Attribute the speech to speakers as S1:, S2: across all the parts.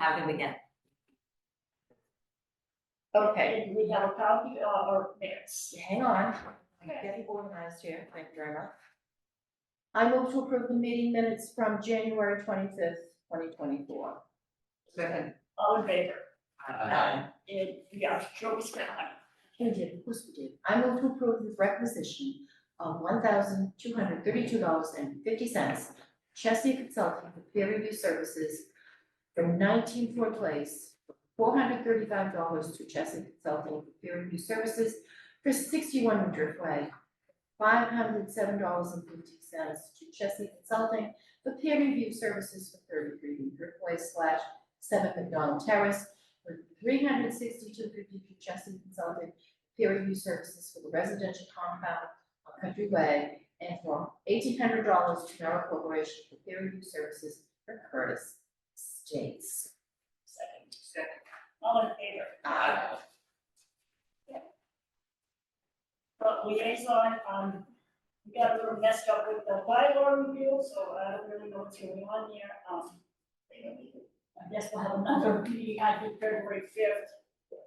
S1: have him again.
S2: Okay,
S3: And we have a uh, copy of our minutes.
S2: hang on, I'm
S3: Okay.
S2: getting organized here, thank you very much. I move to approve the meeting minutes from January twenty-fifth, twenty twenty-four.
S1: Second.
S3: All in favor?
S1: Aye.
S3: uh, And yeah, Joey Smith,
S2: You did, of course we did. I move to approve the requisition of one thousand two hundred thirty-two dollars and fifty cents. Chesney Consulting for peer review services for nineteen Ford Place, four hundred thirty-five dollars to Chesney Consulting for peer review services for sixty-one Driftway, five hundred seven dollars and fifty cents to Chesney Consulting for peer review services for thirty-three Driftway slash seven McDonald Terrace for three hundred sixty-two fifty to Chesney Consulting peer review services for the residential compound on Country Way and for eighteen hundred dollars to Merrill Corporation for peer review services for Curtis States.
S3: second. Second. All in favor?
S2: Aye.
S3: But liaison, um, we got a little messed up with the bylaw review, so I don't really know what's going on there, um. I guess we'll have another meeting, I think February fifth,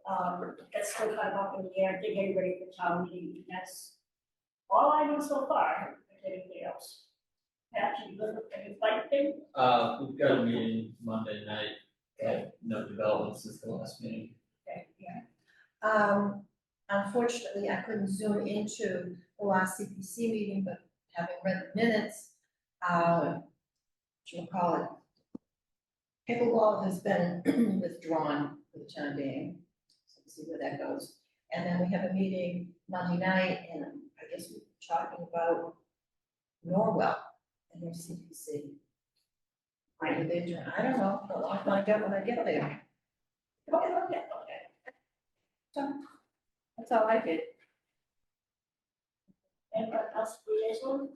S3: um, that's still kind of up in the air, they're getting ready for town meeting, that's all I know so far, if anything else. Pat, you look, you like them?
S4: Uh, we've got a meeting Monday night, but no developments since the last meeting.
S3: Okay, yeah.
S2: Um, unfortunately, I couldn't zoom into the last CPC meeting, but having read the minutes, uh, what you call it, pickleball has been withdrawn for the time being, so we'll see where that goes. And then we have a meeting Monday night, and I guess we're talking about Norwell and their CPC. Maybe they're doing- I don't know, but I'll find out when I get there.
S3: Okay, okay, okay.
S2: So, that's all I did.
S3: and what else liaison.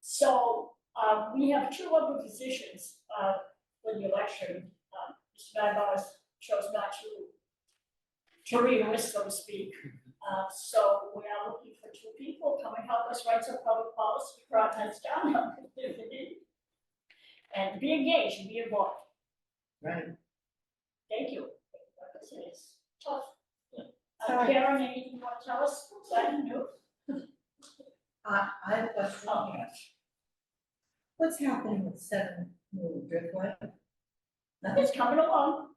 S3: So, um, we have two other positions, uh, for the election, um, Mr. Magbar chose not to to re-enlist, so to speak, uh, so we are looking for two people, come and help us write some public policy, Rob has done, if you need. And be engaged, be involved,
S2: Right.
S3: thank you, Because it is tough. Uh,
S2: Sorry.
S3: Karen, anything you want to tell us, exciting news?
S2: I, I have a question.
S3: Oh,
S2: What's happening with seven new driftway? Nothing,
S3: It's coming along.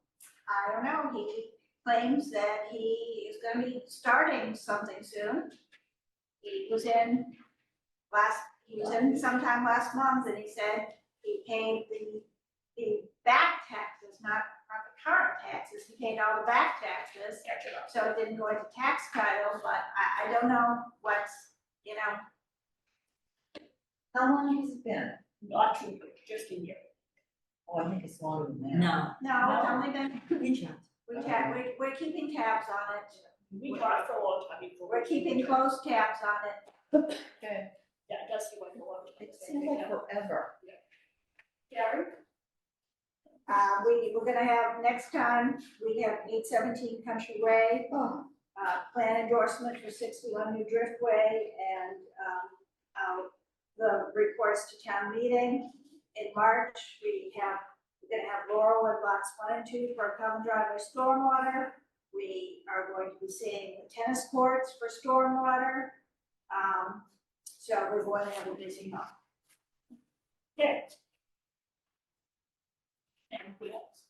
S5: I don't know, he claims that he is gonna be starting something soon. He was in last, he was in sometime last month and he said he paid the, the back taxes, not, not the current taxes, he paid all the back taxes. So it didn't go into tax title, but I, I don't know what's, you know,
S2: how long has it been?
S3: Not too good, just a year.
S2: Oh, I think it's longer than that.
S1: No.
S5: no, it's only been,
S1: Good job.
S5: we ta- we, we're keeping tabs on it.
S3: We talked for a long time before.
S5: We're keeping close tabs on it.
S2: Okay,
S3: Yeah, that's the one, the one.
S2: it seems like forever.
S3: Karen?
S5: Uh, we, we're gonna have, next time, we have eight seventeen Country Way,
S2: Oh,
S5: uh, plan endorsement for sixty-one New Driftway, and, um, uh, the reports to town meeting. In March, we have, we're gonna have Laurel and lots one and two for common driveway stormwater. We are going to be seeing the tennis courts for stormwater. Um, so we're going to have a busy month.
S3: Yeah. And who else?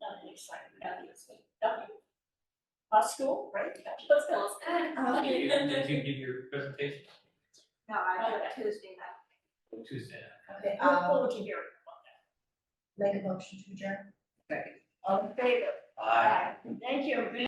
S3: Nothing exciting, nothing exciting, nothing. Our school, right? Let's go.
S4: Did you, did you give your presentation
S5: No, I have Tuesday night.
S4: Tuesday?
S2: okay,
S3: Look
S2: um,
S3: forward to hearing about that.
S2: make a motion to adjourn.
S3: All in favor?
S4: Aye.
S3: Thank you.